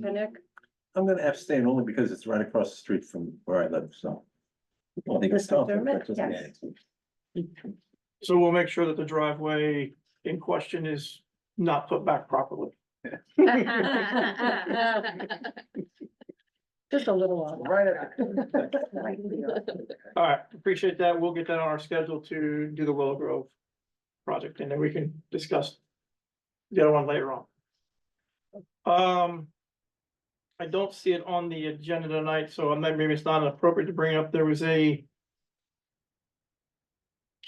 Nick? I'm gonna abstain only because it's right across the street from where I live, so. I think it's Mr. tough, but Dermott, that's just me. yes. So we'll make sure that the driveway in question is not put back properly. Just a little off. Right at the- All right, appreciate that. We'll get that on our schedule to do the Willow Grove project, and then we can discuss the other one later on. Um, I don't see it on the agenda tonight, so I'm not, maybe it's not appropriate to bring up. There was a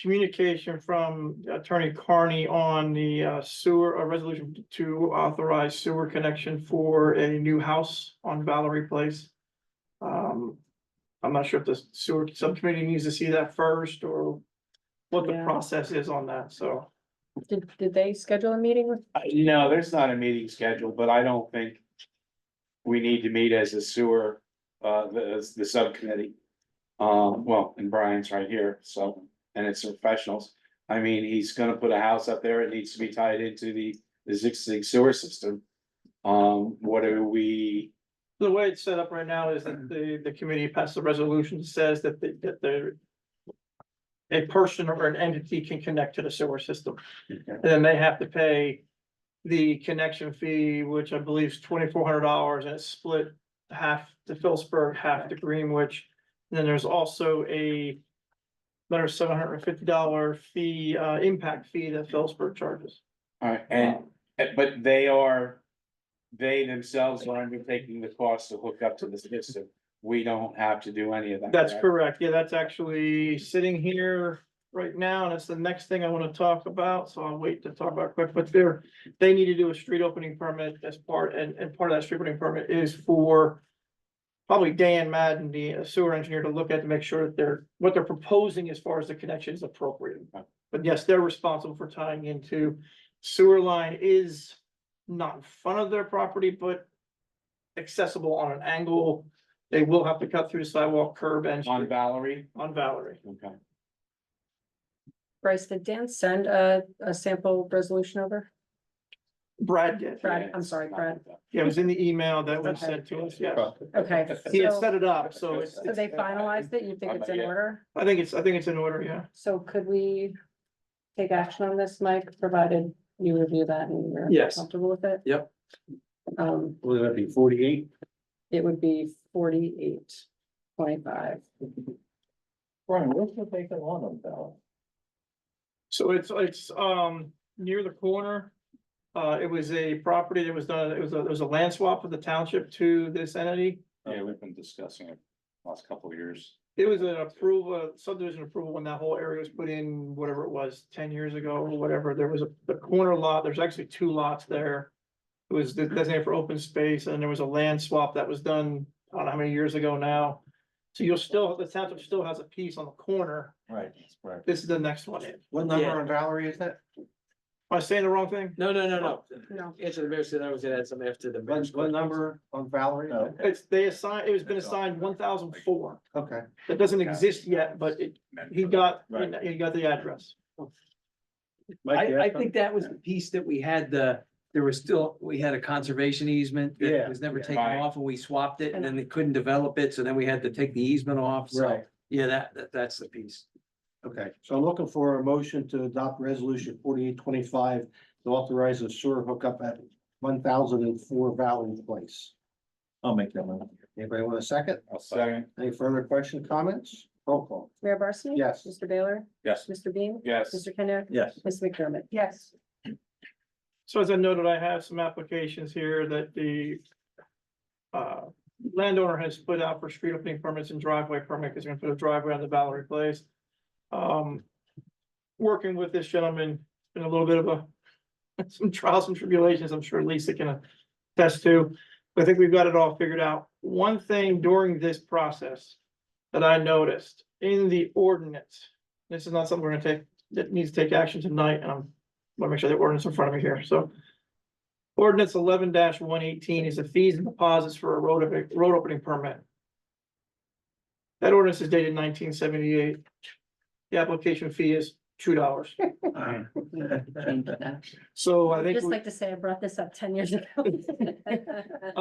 communication from Attorney Carney on the uh, sewer, a resolution to authorize sewer connection for a new house on Valerie Place. Um, I'm not sure if the sewer subcommittee needs to see that first or what the Yeah. process is on that, so. Did, did they schedule a meeting with? Uh, no, there's not a meeting scheduled, but I don't think we need to meet as a sewer, uh, the, as the subcommittee. Um, well, and Brian's right here, so, and it's professionals. I mean, he's gonna put a house up there. It needs to be tied into the existing sewer system. Um, what are we, The way it's set up right now is that the, the committee passed a resolution that says that, the- that there a person or an entity can connect to the sewer system. And then they have to pay the connection fee, which I believe is twenty-four hundred dollars, and it's split half to Phillipsburg, half to Greenwich. And Then there's also a better seven hundred and fifty dollar fee, uh, impact fee that Phillipsburg charges. alright, and, but they are. They themselves are undertaking the cost to hook up to the system. We don't have to do any of that. That's correct? correct. Yeah, that's actually sitting here right now, and it's the next thing I want to talk about, so I'll wait to talk about it quick, but there. They need to do a street opening permit as part, and, and part of that street opening permit is for. Probably Dan Madden, the sewer engineer, to look at to make sure that they're, what they're proposing as far as the connection is appropriate. But yes, they're responsible for tying into sewer line is not in front of their property, but. Accessible on an angle, they will have to cut through sidewalk curb and. On Valerie, On Valerie. okay. Bryce, did Dan send a, a sample resolution over? Brad did. Brad, I'm sorry, Brad. Yeah, it was in the email that was Okay. sent to us, yeah. Okay, He had so- set it up, so it's, So they finalized it? uh, You think it's in order? I think it's, I think it's in order, yeah. So could we take action on this, Mike, provided you review that and you're Yes. comfortable with it? Yep. Um, Will that be forty-eight? it would be forty-eight, twenty-five. Brian, where's the vacant lot on Bell? So it's, it's, um, near the corner. Uh, it was a property that was done, it was a, there was a land swap of the township to this entity. Yeah, we've been discussing it last couple of years. It was an approval, subdivision approval when that whole area was put in, whatever it was, ten years ago or whatever. There was a, the corner lot, there's actually two lots there. It was designated for open space and there was a land swap that was done, I don't know how many years ago now. So you'll still, the township still has a piece on the corner. Right, right. This is the next one in. Am What number on Valerie is that? I saying the wrong thing? No, no, no, no. No. Answer the mayor said I was gonna add some after the. What, mayor's what question. number on Valerie? No. It's, they assigned, it has been assigned one thousand four. Okay. That doesn't exist yet, but it, he got, he got the address. Mike, you I, I have think that was the piece that we had the, there was still, we had a conservation easement Yeah. that was never taken Right. off and we swapped it and then they couldn't develop it. So then we had to take the easement off. something? So, Right, yeah, that, that, that's the piece. okay, so I'm looking for a motion to adopt resolution forty-eight twenty-five to authorize a sewer hookup at one thousand and four Valerie Place. I'll make that one. Anybody want a second? I'll second. Any further questions, comments? Roll call. Mayor Barsney? Yes. Mr. Baylor? Yes. Mr. Bean? Yes. Mr. Kenneth? Yes. Ms. McDermott? Yes. So as I noted, I have some applications here that the uh, landowner has put out for street opening permits and driveway permit, because they're gonna put a driveway on the Valerie Place. Um, working with this gentleman, it's been a little bit of a, some trials and tribulations, I'm sure Lisa can attest to. But I think we've got it all figured out. One thing during this process that I noticed in the ordinance, this is not something we're gonna take, that needs to take action tonight, and I'm want to make sure the ordinance in front of me here, so. Ordinance eleven one eighteen is the fees and deposits for a road, opening- road opening permit. That ordinance is dated nineteen seventy-eight. The application fee is two dollars, so I think. Just we- like to say I brought this up ten years ago.